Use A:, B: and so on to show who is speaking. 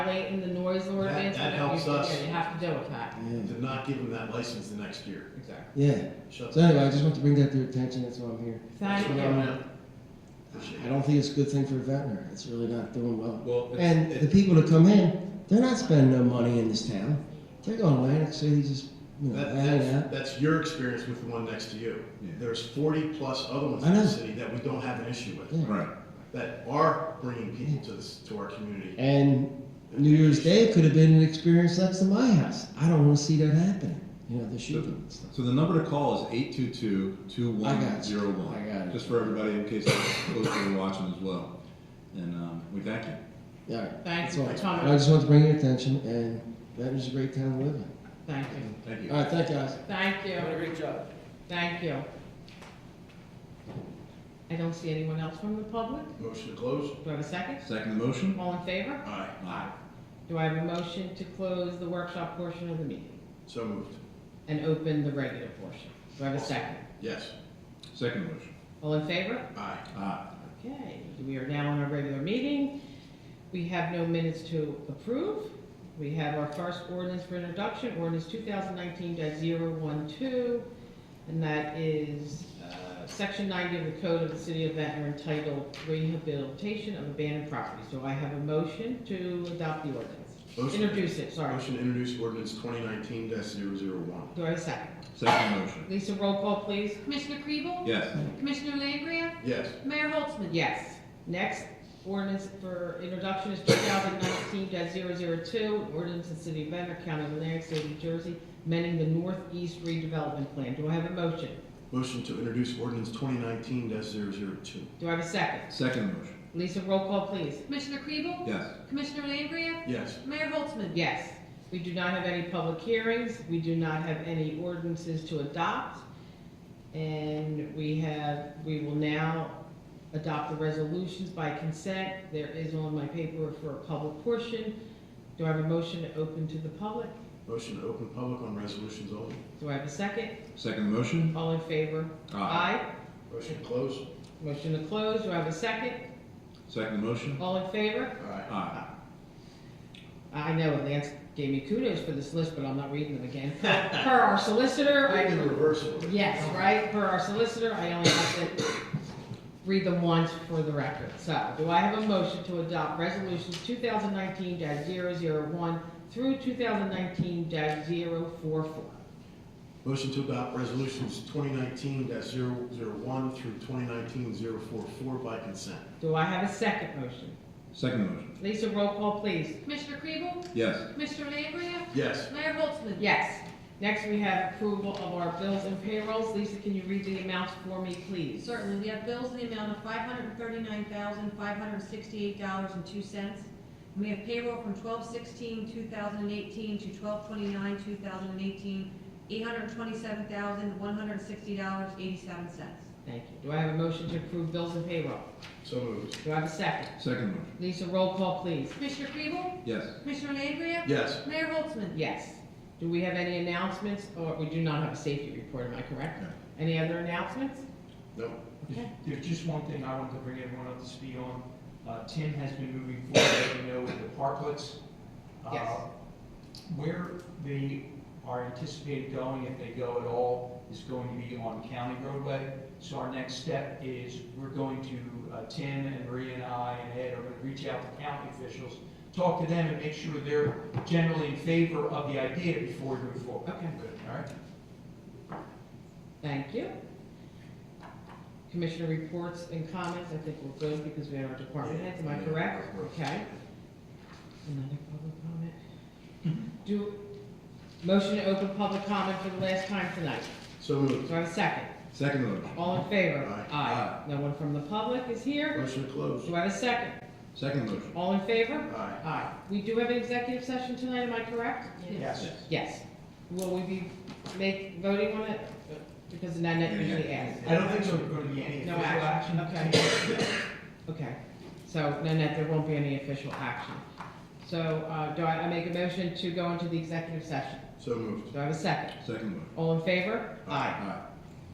A: way in the noise ordinance,
B: that
A: whatever you
B: helps
A: think,
B: us.
A: yeah, you have to deal with that,
C: Yeah.
B: to not give them that license the next year.
A: exactly.
C: Yeah.
B: Shut
C: So
B: that
C: anyway, I just want to bring that to your attention. That's why I'm here.
A: Thank
C: So,
A: you.
C: um,
B: down. Appreciate
C: I
B: it.
C: don't think it's a good thing for a veterinary. It's really not doing well.
D: Well, it's-
C: And the
D: it-
C: people that come in, they're not spending no money in this town. They're going to Atlantic City, just you know,
B: That,
C: hanging
B: that's,
C: out.
B: that's your experience with the one next to you.
D: Yeah.
B: There's forty plus other ones
C: I
B: in the
C: know.
B: city that we don't have an issue with,
C: Yeah.
D: right.
B: that are bringing people to this, to our community.
C: And New Year's Day could have been an experience next to my house. I don't want to see that happening. You know, the shooting and stuff.
D: So the number to call is eight two two two
C: I
D: one
C: got you.
D: zero one.
C: I got it.
D: Just for everybody in case those who are watching as well. And um, we thank you.
C: All right.
A: Thanks
C: That's
A: for
C: all.
A: coming.
C: I just want to bring your attention, and Ventnor's a great town to live in.
A: Thank you,
D: Thank you.
C: All right, thank you, guys.
A: thank you,
E: Doing a great job.
A: thank you. I don't see anyone else from the public,
B: Motion to close?
A: do I have a second?
D: Second the motion.
A: All in favor?
B: Aye.
D: Aye.
A: Do I have a motion to close the workshop portion of the meeting
B: So moved.
A: and open the regular portion? Do I have a second?
B: Yes.
D: Second motion.
A: All in favor?
B: Aye.
D: Aye.
A: Okay, we are now on our regular meeting. We have no minutes to approve. We have our first ordinance for introduction, ordinance 2019-012, and that is uh, section 90 of the code of the city of Ventnor entitled rehabilitation of abandoned properties. Do I have a motion to adopt the ordinance?
B: Motion.
A: Introduce it, sorry.
B: Motion to introduce ordinance twenty nineteen one
A: Do I have a second?
D: Second motion.
A: Lisa, roll call, please.
F: Commissioner Kriebel?
D: Yes.
F: Commissioner Langria?
B: Yes.
F: Mayor Holtzman?
A: Yes. Next ordinance for introduction is two thousand nineteen 2 ordinance in City of Venter, County of Atlantic, State of New Jersey, amending the Northeast redevelopment plan. Do I have a motion?
B: Motion to introduce ordinance twenty nineteen 2
A: Do I have a second?
D: Second motion.
A: Lisa, roll call, please.
F: Commissioner Kriebel?
D: Yes.
F: Commissioner Langria?
B: Yes.
F: Mayor Holtzman?
A: Yes. We do not have any public hearings. We do not have any ordinances to adopt. And we have, we will now adopt the resolutions by consent. There is on my paper for a public portion. Do I have a motion to open to the public?
B: Motion to open public on resolutions only.
A: Do I have a second?
D: Second motion.
A: All in favor?
B: Motion to close?
A: Motion to close, do I have a second?
D: Second motion.
A: All in favor?
B: Aye.
D: Aye.
A: I know Lance gave me kudos for this list, but I'm not reading them again. Per our solicitor,
B: I think in
A: I,
B: reverse order.
A: yes, right, per our solicitor, I only have to read them once for the record. So, do I have a motion to adopt resolutions two thousand nineteen one through two thousand nineteen 44
B: Motion to adopt resolutions twenty nineteen one through 2019-044 by consent.
A: Do I have a second motion?
D: Second motion.
A: Lisa, roll call, please.
F: Commissioner Kriebel?
D: Yes.
F: Commissioner Langria?
B: Yes.
F: Mayor Holtzman?
A: Yes. Next, we have approval of our bills and payrolls. Lisa, can you read the amounts for me, please?
F: Certainly, we have bills in the amount of five hundred and thirty-nine thousand, five hundred and sixty-eight dollars and two cents. We have payroll from twelve sixteen, two thousand and eighteen to twelve twenty-nine, two thousand and eighteen, eight hundred and twenty-seven thousand, one hundred and sixty dollars, eighty-seven cents.
A: Thank you. Do I have a motion to approve bills and payroll?
B: So moved.
A: Do I have a second?
D: Second motion.
A: Lisa, roll call, please.
F: Commissioner Kriebel?
D: Yes.
F: Commissioner Langria?
B: Yes.
F: Mayor Holtzman?
A: Yes. Do we have any announcements, or we do not have a safety report, am I correct?
D: No.
A: Any other announcements?
B: No.
E: There's just one thing I wanted to bring everyone up to speed on. Uh, Tim has been moving forward, as you know, with the parklets. uh,
A: Yes.
E: Where they are anticipated going, if they go at all, is going to be on county roadway. So our next step is we're going to, uh, Tim and Maria and I and Ed are going to reach out to county officials, talk to them and make sure they're generally in favor of the idea before we move forward.
A: Okay,
E: All right?
A: thank you. Commissioner reports and comments, I think we're good because we had our department heads, am I
B: Yeah.
A: correct? Okay. Another public comment. Do, motion to open public comment for the last time tonight.
B: So moved.
A: Do I have a second?
D: Second motion.
A: All in favor?
B: Aye.
A: No one from the public is here.
B: Motion to close?
A: Do I have a second?
D: Second motion.
A: All in favor?
B: Aye.
A: Aye. We do have an executive session tonight, am I correct?
E: Yes.
A: Yes. Will we be make, voting on it? Because then I usually asks.
E: I don't think there's going to be any
A: No
E: official action.
A: action, okay. Okay, so, Nanette, there won't be any official action. So, uh, do I, I make a motion to go into the executive session?
B: So moved.
A: Do I have a second?
D: Second motion.
A: All in favor?
D: Aye.